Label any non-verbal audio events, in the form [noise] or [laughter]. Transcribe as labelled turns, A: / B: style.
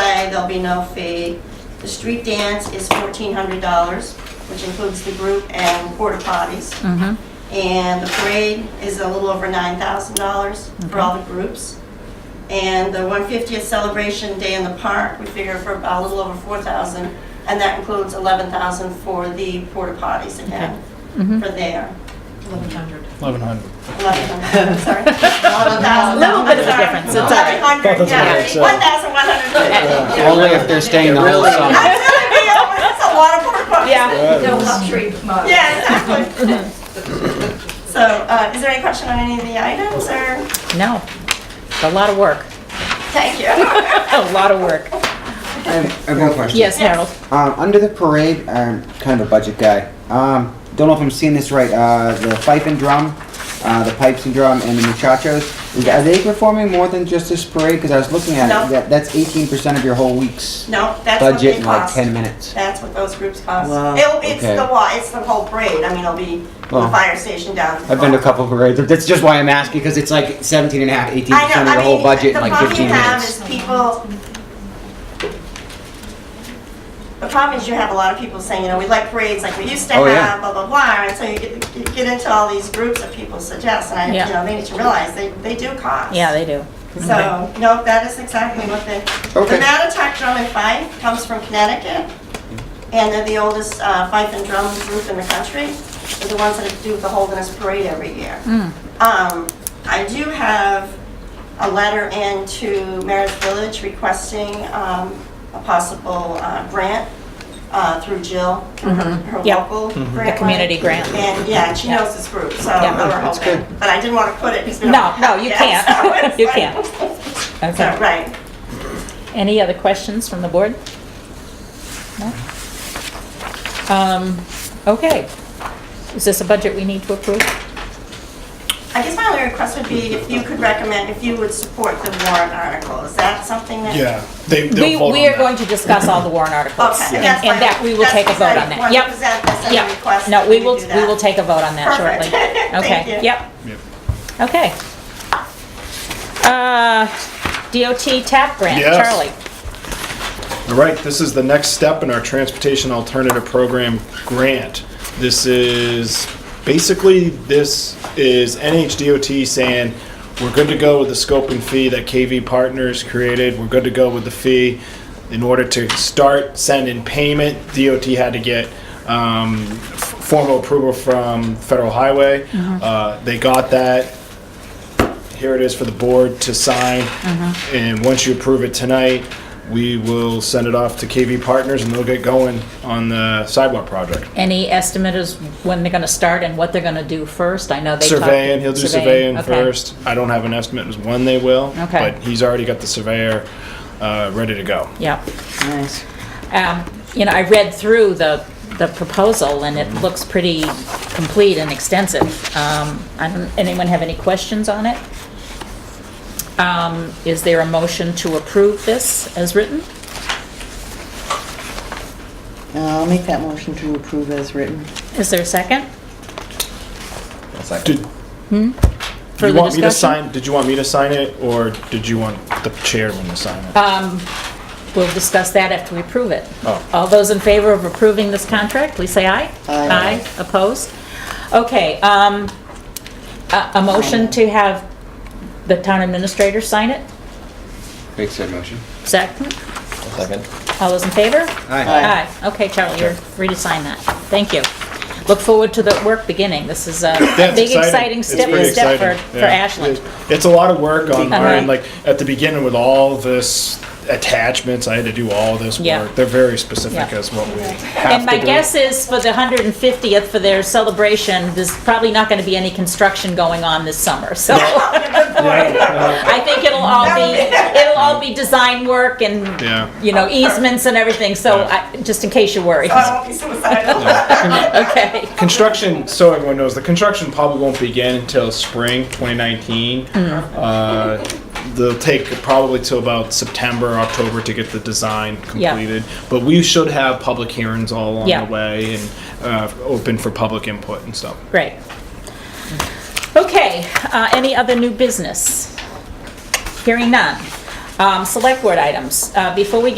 A: there'll be no fee. The street dance is $1,400, which includes the group and porta potties.
B: Mm-hmm.
A: And the parade is a little over $9,000 for all the groups. And the 150th celebration day in the park, we figure for about a little over 4,000, and that includes 11,000 for the porta potties again,
B: Mm-hmm.
A: for there.
C: 1100.
A: 11,000,
B: [laughs]
A: sorry. 11,000.
B: Little bit of
A: I'm
B: a
A: sorry.
B: difference, it's all right.
A: 1,100, yeah,
C: That's all right.
A: 1,150.
D: Only if they're staying the whole
A: I'm
D: summer.
A: gonna be over, that's a lot of porta potties.
B: Yeah.
E: No luxury mode.
A: Yeah, exactly. So, uh, is there any question on any of the items, or?
B: No, it's a lot of work,
A: Thank you.
B: a lot of work.
F: I have I have one question.
B: Yes, Harold?
F: Um, under the parade, I'm kind of a budget guy. Um, don't know if I'm seeing this right. Uh, the pipe and drum, uh, the pipes and drum, and the muchachos. Is, are they performing more than just this parade? Because I was looking at
A: No.
F: it. That, that's 18% of your whole week's
A: No, that's what
F: budget
A: they
F: in like
A: cost.
F: 10 minutes.
A: That's what those groups cost.
F: Wow.
A: It'll, it's
F: Okay.
A: the wa, it's the whole parade, I mean, it'll be from the
F: Well,
A: fire station down. the
F: I've been to a
A: park.
F: couple parades. That's just why I'm asking because it's like 17 and a half, 18%
A: I know,
F: of your
A: I
F: whole
A: mean,
F: budget
A: the
F: in like
A: problem
F: 15
A: you have
F: minutes.
A: is people. The problem is you have a lot of people saying, you know, we like parades like we used to
F: Oh, yeah.
A: have, blah, blah, blah, and so you get, you get into all these groups of people suggest, and I,
B: Yeah.
A: you know, they need to realize they, they do cost.
B: Yeah, they do.
A: So, no, that is exactly what they, the
F: Okay.
A: Matatuck Drum and Fife comes from Connecticut, and they're the oldest uh, fife and drum group in the country. They're the ones that do the Holderness Parade every year.
B: Hmm.
A: Um, I do have a letter in to Meredith Village requesting um, a possible uh, grant uh, through Jill, through her her
B: Yep.
A: local grant.
F: Mm-hmm.
B: Mm-hmm. The community
A: line.
B: grant.
A: And, yeah, and she knows this group, so we're
F: that's
A: hoping.
F: good.
A: But I didn't want to put it, because we don't
B: No, no,
A: have [laughs]
B: you
A: yet, so
B: can't,
A: it's
B: you
A: like-
B: can't.
A: so,
B: Okay.
A: Right.
B: Any other questions from the board? No? Um, okay. Is this a budget we need to approve?
A: I guess my only request would be if you could recommend, if you would support the warrant article. Is that something that?
C: Yeah, they,
B: We,
C: they'll vote on
B: we are
C: that.
B: going to discuss all the warrant articles.
A: Okay.
B: And
A: that's
B: and
A: my-
B: that, we will
A: that's
B: take a vote on
A: because I
B: that.
A: wanted to
B: Yep.
A: present this as a
B: Yep.
A: request,
B: No,
A: if
B: we
A: could
B: will,
A: do
B: we
A: that.
B: will take a vote on that
A: Perfect.
B: shortly.
A: Thank
B: Okay,
A: you.
B: yep,
C: Yep.
B: okay. Uh, DOT TAP grant,
C: Yes.
B: Charlie.
C: All right, this is the next step in our Transportation Alternative Program grant. This is, basically, this is NHDOT saying, we're good to go with the scope and fee that KV Partners created, we're good to go with the fee. In order to start sending payment, DOT had to get um, f- formal approval from Federal Highway.
B: Mm-hmm.
C: Uh, They got that, here it is for the board to sign.
B: Uh-huh.
C: And once you approve it tonight, we will send it off to KV Partners and they'll get going on the sidewalk project.
B: Any estimate is when they're gonna start and what they're gonna do first? I know they talked.
C: Surveying, he'll do surveying
B: okay.
C: first. I don't have an estimate as when they will,
B: Okay.
C: but he's already got the surveyor uh, ready to go.
B: Yeah. Nice. You know, I read through the, the proposal, and it looks pretty complete and extensive. Um, I don't, anyone have any questions on it? Um, Is there a motion to approve this as written?
G: I'll make that motion to approve as written.
B: Is there a second?
C: Did you
B: Further
C: want me to
B: Hmm? discussion?
C: sign, did you want me to sign it or did you want the chairman to sign it?
B: Um, We'll discuss that after we approve it.
C: Oh.
B: All those in favor of approving this contract, please say aye.
G: Aye.
B: opposed? Okay, um, a, a motion to have the town administrator sign it?
F: Make said motion.
B: Second?
D: Second.
B: All those in favor?
F: Aye.
B: Aye. Okay, Charlie, you're free to sign that. Thank you. Look forward to the work beginning. This is a
C: That's
B: big,
C: exciting.
B: exciting
C: It's
B: step,
C: pretty
B: step for,
C: exciting,
B: for
C: yeah.
B: Ashland.
C: It's a lot of work on
B: Uh-huh.
C: our end. Like at the beginning with all this attachments, I had to do all this
B: Yeah.
C: work. They're very specific
B: Yeah.
C: as what we have
B: And my
C: to do.
B: guess is for the 150th, for their celebration, there's probably not going to be any construction going on this summer, so. I think it'll all be, it'll all be design work
C: Yeah.
B: and, you know, easements and everything, so
C: Yeah.
B: I- just in case you're
A: [laughs]
B: worried.
A: Oh, I won't be
B: [laughs]
A: suicidal.
B: Okay.
C: [laughs] construction. So everyone knows the construction probably won't begin until spring 2019.
B: Mm-hmm.
C: Uh, they'll take probably till about September, October to get the design
B: Yeah.
C: completed. But we should have public hearings all along
B: Yeah.
C: the way and uh, open for public input and stuff.
B: Great. Okay, uh, any other new business? Hearing none. Um, Select Board items. Uh, Before we get